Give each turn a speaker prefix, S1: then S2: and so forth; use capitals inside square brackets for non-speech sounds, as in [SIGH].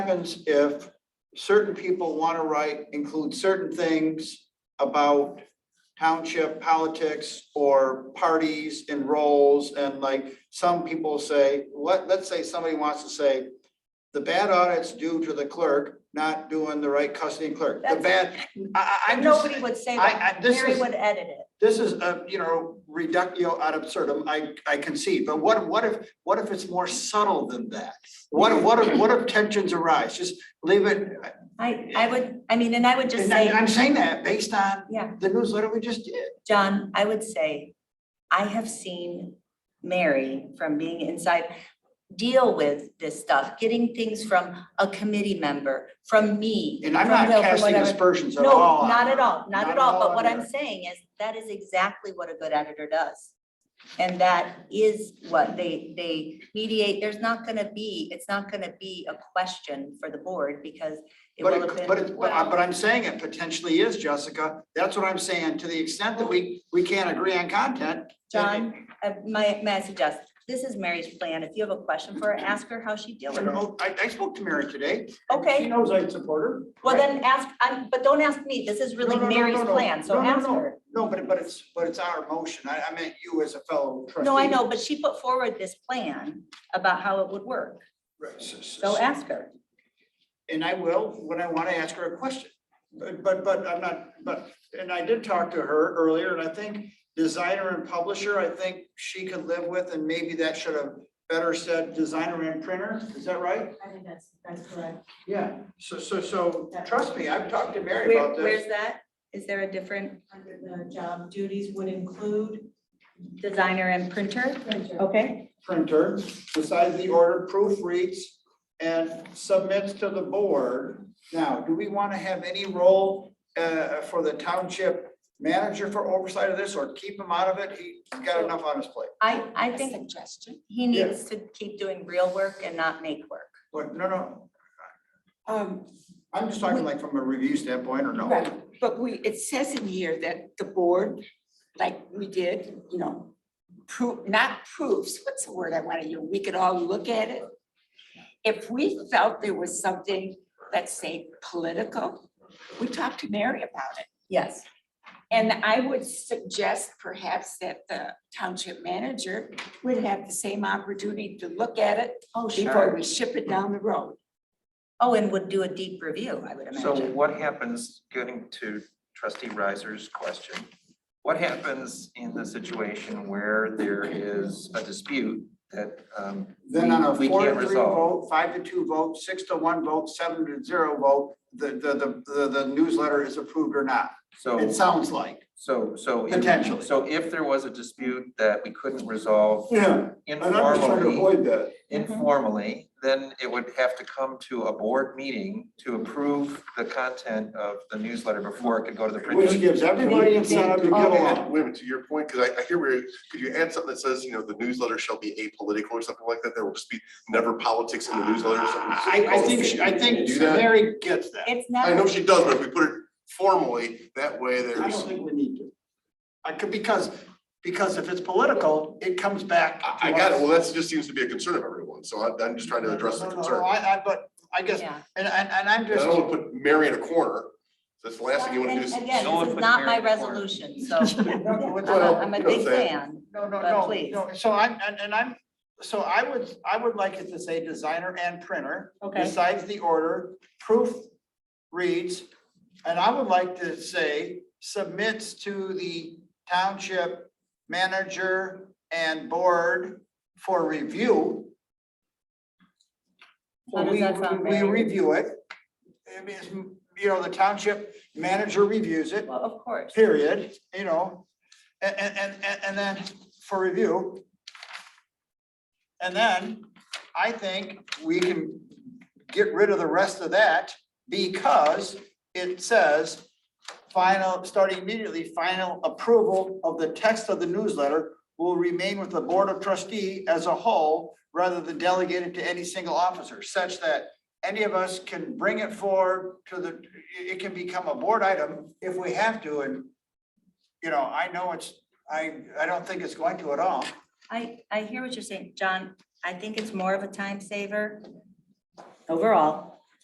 S1: happens if certain people want to write, include certain things about township politics or parties and roles, and like, some people say, let, let's say somebody wants to say, the bad audit's due to the clerk not doing the right custody clerk, the
S2: That's-
S1: bad, I, I, I'm just.
S2: Nobody would say
S1: I-
S2: that.
S1: I- this
S2: Mary
S1: is-
S2: would edit it.
S1: This is a, you know, reductio ad absurdum, I, I concede, but what, what if, what if it's more subtle than that? What, if- what, if- what if tensions arise, just leave it,
S2: I, I would, I mean, and I would just
S1: and I-
S2: say,
S1: I'm saying that based on
S2: Yeah.
S1: the newsletter we just did.
S2: John, I would say, I have seen Mary from being inside deal with this stuff, getting things from a committee member, from me.
S1: And I'm
S2: from
S1: not
S2: Will, from
S1: casting
S2: whatever.
S1: aspersions at all.
S2: No,
S1: on
S2: not
S1: her.
S2: at all, not
S1: Not
S2: at all,
S1: at
S2: but
S1: all
S2: what
S1: on her.
S2: I'm saying is that is exactly what a good editor does. And that is what they, they mediate, there's not gonna be, it's not gonna be a question for the board because it
S1: But
S2: will have
S1: it, but it,
S2: been.
S1: but I- but I'm saying it potentially is, Jessica, that's what I'm saying, to the extent that we, we can't agree on content. then-
S2: John, uh, my, may I suggest, this is Mary's plan, if you have a question for her, ask her how she deals with it.
S1: No, I, I spoke to Mary today. She
S2: Okay,
S1: knows I support her.
S2: well
S1: right?
S2: then ask, I'm, but don't ask me, this is really
S1: No, no, no,
S2: Mary's
S1: no, no.
S2: plan, so
S1: No, no,
S2: ask
S1: no.
S2: her.
S1: No, but, but it's, but it's our motion. I, I meant you as a fellow trustee.
S2: No, I know, but she put forward this plan about how it would work,
S1: Right, so- so-
S2: so ask her.
S1: And I will, when I want to ask her a question. But, but, but I'm not, but, and I did talk to her earlier, and I think designer and publisher, I think she could live with, and maybe that should have better said designer and printer, is that right?
S3: I think that's, that's correct.
S1: Yeah. So, so, so, trust me, I've talked to Mary
S2: Where,
S1: about this.
S2: where's that? Is there a different
S3: Under the job duties would include.
S2: designer and printer? Okay.
S1: Printer, besides the order, proofreads and submits to the board. Now, do we want to have any role, uh, for the township manager for oversight of this, or keep him out of it? He's got enough on his plate.
S2: I, I think
S3: Suggestion.
S2: he needs to keep doing real work and not make work.
S1: What, no, no,
S4: Um,
S1: I'm just talking like from a review standpoint or no?
S4: right, but we, it says in here that the board, like we did, you know, proof, not proofs, what's the word I want to use? We could all look at it. If we felt there was something, let's say, political, we talked to Mary about it.
S2: Yes.
S4: And I would suggest perhaps that the township manager would have the same opportunity to look at it
S2: Oh,
S4: before
S2: sure.
S4: we ship it down the road.
S2: Oh, and would do a deep review, I would
S5: So
S2: imagine.
S5: what happens, getting to trustee Riser's question, what happens in the situation where there is a dispute that, um,
S1: Then on a
S5: We- we
S1: four to
S5: can't
S1: three
S5: resolve.
S1: vote, five to two vote, six to one vote, seven to zero vote, the, the, the, the newsletter is approved or not. It
S5: so,
S1: sounds like.
S5: so, so. if-
S1: Potentially.
S5: So if there was a dispute that we couldn't resolve
S1: Yeah,
S5: informally,
S1: that.
S5: informally, then it would have to come to a board meeting to approve the content of the newsletter before it could go to the
S1: Which
S5: printer.
S1: gives everybody incentive to get along.
S6: Wait a minute, to your point, because I, I hear where, could you add something that says, you know, the newsletter shall be apolitical or something like that? There will just be never politics in the newsletter or something.
S1: I, I think, she- I think
S6: Do that?
S1: Mary gets that.
S2: It's
S6: I know
S2: not,
S6: she does, but if we put it formally, that way
S1: I
S6: there's,
S1: don't think we need to. I could, because, because if it's political, it comes back. to
S6: I, I got it.
S1: us.
S6: Well, that just seems to be a concern of everyone, so I, I'm just trying to address the
S1: No, no, no,
S6: concern.
S1: I, I, but I guess,
S2: yeah.
S1: and, and, and I'm
S6: I
S1: just.
S6: don't want to put Mary in a corner. That's the last thing you want to do.
S2: And
S6: is-
S2: again,
S5: No one
S2: this is
S5: put
S2: not my
S5: Mary in the corner.
S2: resolution, [LAUGHS] so
S1: No, [LAUGHS] no, it's-
S2: I'm a, I'm a
S6: you know
S2: big
S6: what I'm saying.
S2: fan.
S1: No, no,
S2: But
S1: no,
S2: please.
S1: no, so I'm, and, and I'm, so I would, I would like it to say designer and printer,
S2: Okay,
S1: besides the order, proof reads. And I would like to say submits to the township manager and board for review.
S2: How does
S1: We-
S2: that sound,
S1: We
S2: Mary?
S1: review it. I mean, it's, you know, the township manager reviews it
S2: well, of course.
S1: period, you know, and, and, and, and then for review. And then I think we can get rid of the rest of that because it says final, starting immediately, final approval of the text of the newsletter will remain with the Board of Trustee as a whole rather than delegated to any single officer such that any of us can bring it forward to the, it it can become a board item if we have to, and you know, I know it's, I, I don't think it's going to at all.
S2: I, I hear what you're saying, John. I think it's more of a time saver overall.